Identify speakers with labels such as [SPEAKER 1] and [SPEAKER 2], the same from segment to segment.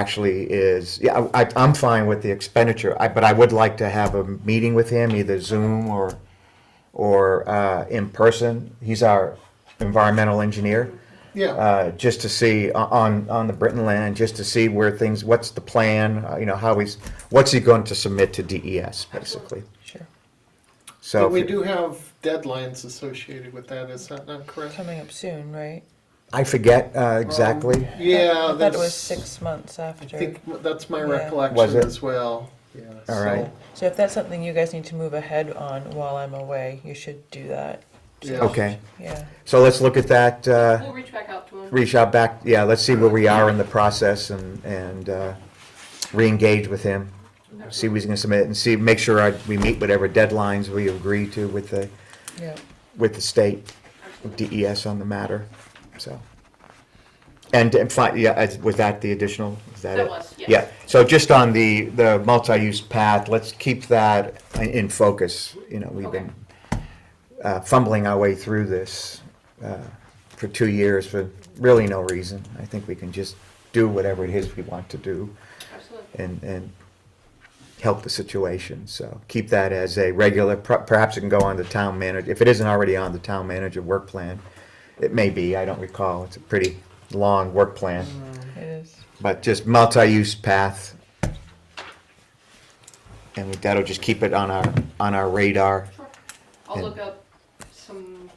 [SPEAKER 1] actually is, yeah, I, I'm fine with the expenditure, I, but I would like to have a meeting with him, either Zoom or, or, uh, in person. He's our environmental engineer.
[SPEAKER 2] Yeah,
[SPEAKER 1] Uh, just to see o- on, on the Britton land, just to see where things, what's the plan, uh, you know, how he's, what's he going to submit to DES, basically.
[SPEAKER 3] Sure.
[SPEAKER 1] So.
[SPEAKER 2] but
[SPEAKER 1] if
[SPEAKER 2] we
[SPEAKER 1] you-
[SPEAKER 2] do have deadlines associated with that, is that not correct?
[SPEAKER 3] Coming up soon, right?
[SPEAKER 1] I forget, uh, exactly.
[SPEAKER 2] Yeah,
[SPEAKER 3] I thought
[SPEAKER 2] that's,
[SPEAKER 3] it was six months
[SPEAKER 2] I
[SPEAKER 3] after.
[SPEAKER 2] think that's my
[SPEAKER 3] Yeah.
[SPEAKER 1] Was
[SPEAKER 2] recollection
[SPEAKER 1] it?
[SPEAKER 2] as well, yeah.
[SPEAKER 1] All
[SPEAKER 2] so-
[SPEAKER 1] right.
[SPEAKER 3] So if that's something you guys need to move ahead on while I'm away, you should do that.
[SPEAKER 2] Yeah.
[SPEAKER 1] Okay,
[SPEAKER 3] Yeah.
[SPEAKER 1] so let's look at that, uh,
[SPEAKER 4] We'll reach back out to him.
[SPEAKER 1] reach out back, yeah, let's see where we are in the process and, and uh, reengage with him. See what he's gonna submit and see, make sure I- we meet whatever deadlines we agree to with the,
[SPEAKER 3] Yeah.
[SPEAKER 1] with the state, with DES on the matter, so. And, and fi- yeah, as- was that the additional, is that it?
[SPEAKER 4] That was, yes.
[SPEAKER 1] Yeah, so just on the, the multi-use path, let's keep that in- in focus, you know, we've been uh, fumbling our way through this uh, for two years for really no reason. I think we can just do whatever it is we want to do
[SPEAKER 4] Absolutely.
[SPEAKER 1] and, and help the situation. So keep that as a regular, per- perhaps it can go on the town manager, if it isn't already on the town manager work plan. It may be, I don't recall, it's a pretty long work plan,
[SPEAKER 3] It is.
[SPEAKER 1] but just multi-use path. And that'll just keep it on our, on our radar.
[SPEAKER 4] Sure. I'll
[SPEAKER 1] And-
[SPEAKER 4] look up some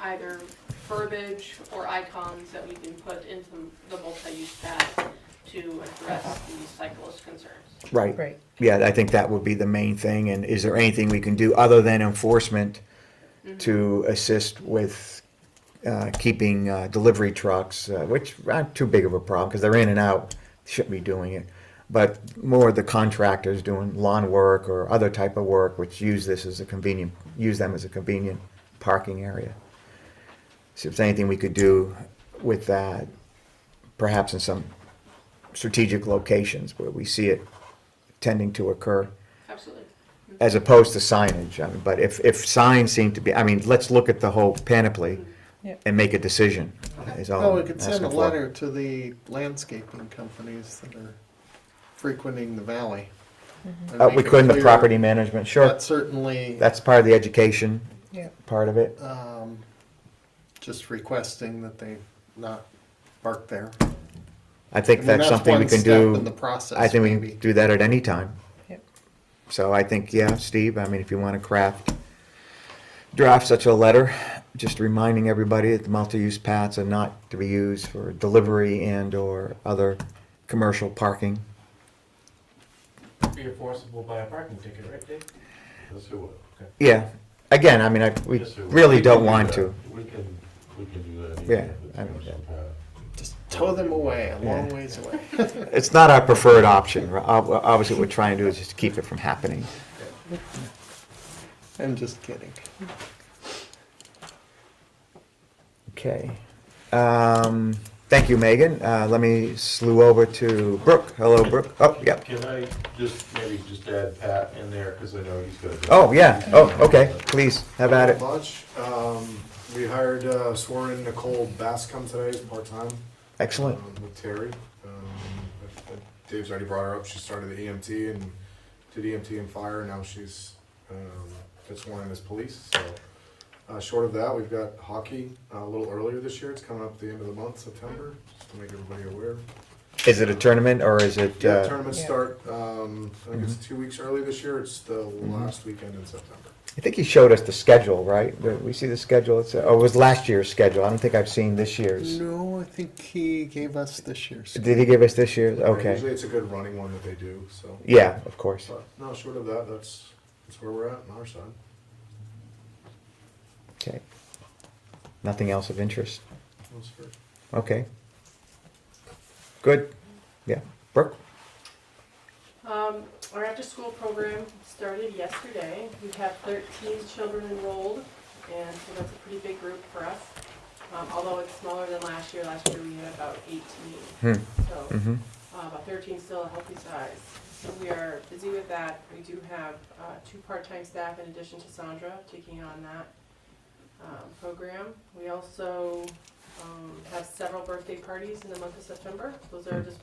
[SPEAKER 4] either verbiage or icons that we can put into the multi-use pad to address the cyclist concerns.
[SPEAKER 1] Right.
[SPEAKER 3] Right.
[SPEAKER 1] Yeah, I think that would be the main thing, and is there anything we can do other than enforcement to assist with uh, keeping uh, delivery trucks, uh, which aren't too big of a problem, because they're in and out, shouldn't be doing it. But more the contractors doing lawn work or other type of work, which use this as a convenient, use them as a convenient parking area. See if there's anything we could do with that, perhaps in some strategic locations where we see it tending to occur,
[SPEAKER 4] Absolutely.
[SPEAKER 1] as opposed to signage. I mean, But if, if signs seem to be, I mean, let's look at the whole panoply
[SPEAKER 3] Yep.
[SPEAKER 1] and make a decision, is all
[SPEAKER 2] Well, we
[SPEAKER 1] I'm
[SPEAKER 2] could send a
[SPEAKER 1] asking for.
[SPEAKER 2] letter to the landscaping companies that are frequenting the valley.
[SPEAKER 3] Mm-hmm.
[SPEAKER 2] and
[SPEAKER 1] Uh,
[SPEAKER 2] make
[SPEAKER 1] we
[SPEAKER 2] it
[SPEAKER 1] could in the
[SPEAKER 2] clear
[SPEAKER 1] property management, sure.
[SPEAKER 2] That certainly,
[SPEAKER 1] That's part of the education
[SPEAKER 3] Yeah.
[SPEAKER 1] part of it.
[SPEAKER 2] um, just requesting that they not bark there.
[SPEAKER 1] I
[SPEAKER 2] I
[SPEAKER 1] think
[SPEAKER 2] mean,
[SPEAKER 1] that's something we
[SPEAKER 2] one
[SPEAKER 1] can
[SPEAKER 2] step
[SPEAKER 1] do.
[SPEAKER 2] In the process,
[SPEAKER 1] I think we
[SPEAKER 2] maybe.
[SPEAKER 1] can do that at any time.
[SPEAKER 3] Yep.
[SPEAKER 1] So I think, yeah, Steve, I mean, if you want to craft, draft such a letter, just reminding everybody that the multi-use paths are not to be used for delivery and/or other commercial parking.
[SPEAKER 5] Be enforceable by a parking ticket, right, Dave?
[SPEAKER 6] Yes, it would.
[SPEAKER 1] Yeah, again, I mean, I, we
[SPEAKER 6] Yes, it would.
[SPEAKER 1] really
[SPEAKER 6] We
[SPEAKER 1] don't
[SPEAKER 6] can do
[SPEAKER 1] want
[SPEAKER 6] that.
[SPEAKER 1] to.
[SPEAKER 6] We can, we can do that.
[SPEAKER 1] Yeah,
[SPEAKER 6] even if
[SPEAKER 1] I
[SPEAKER 6] it's
[SPEAKER 1] mean,
[SPEAKER 6] not-
[SPEAKER 2] Just tow them away, a long ways away.
[SPEAKER 1] It's not our preferred option. Ob- Obviously, what we're trying to do is just keep it from happening.
[SPEAKER 2] I'm just kidding.
[SPEAKER 1] Okay. Um, Thank you, Megan. Uh, Let me slew over to Brooke. Hello, Brooke. Oh, yep.
[SPEAKER 6] Can I just, maybe just add Pat in there, because I know he's got.
[SPEAKER 1] Oh, yeah, oh, okay, please, have at it.
[SPEAKER 7] Much. Um, we hired uh, sworn Nicole Bascom today as part-time
[SPEAKER 1] Excellent,
[SPEAKER 7] um, with Terry. Um, I- I- Dave's already brought her up. She started the EMT and did EMT and fire. Now she's um, got sworn in as police. So uh, short of that, we've got hockey uh, a little earlier this year. It's coming up at the end of the month, September, just to make everybody aware.
[SPEAKER 1] is it a tournament, or is it,
[SPEAKER 7] Yeah,
[SPEAKER 1] uh,
[SPEAKER 7] tournaments
[SPEAKER 3] Yeah.
[SPEAKER 7] start. Um, I think
[SPEAKER 1] Mm-hmm.
[SPEAKER 7] it's two weeks early this year. It's the last weekend in September.
[SPEAKER 1] I think he showed us the schedule, right? The- We see the schedule, it's, oh, it was last year's schedule, I don't think I've seen this year's.
[SPEAKER 2] No, I think he gave us this year's.
[SPEAKER 1] Did he give us this year's? Okay,
[SPEAKER 7] Usually it's a good running one that they do. So.
[SPEAKER 1] yeah, of course.
[SPEAKER 7] But no, short of that, that's, that's where we're at on our side.
[SPEAKER 1] Okay. Nothing else of interest,
[SPEAKER 7] That's fair.
[SPEAKER 1] okay. Good, yeah, Brooke?
[SPEAKER 4] Um, our after-school program started yesterday. We have thirteen children enrolled, and so that's a pretty big group for us. Um, although it's smaller than last year, last year we had about eighteen,
[SPEAKER 1] Hmm,
[SPEAKER 4] so.
[SPEAKER 1] mhm.
[SPEAKER 4] Uh, But 13 is still a healthy size. So we are busy with that. We do have uh, two part-time staff in addition to Sandra taking on that um, program. We also um, have several birthday parties in the month of September. Those are just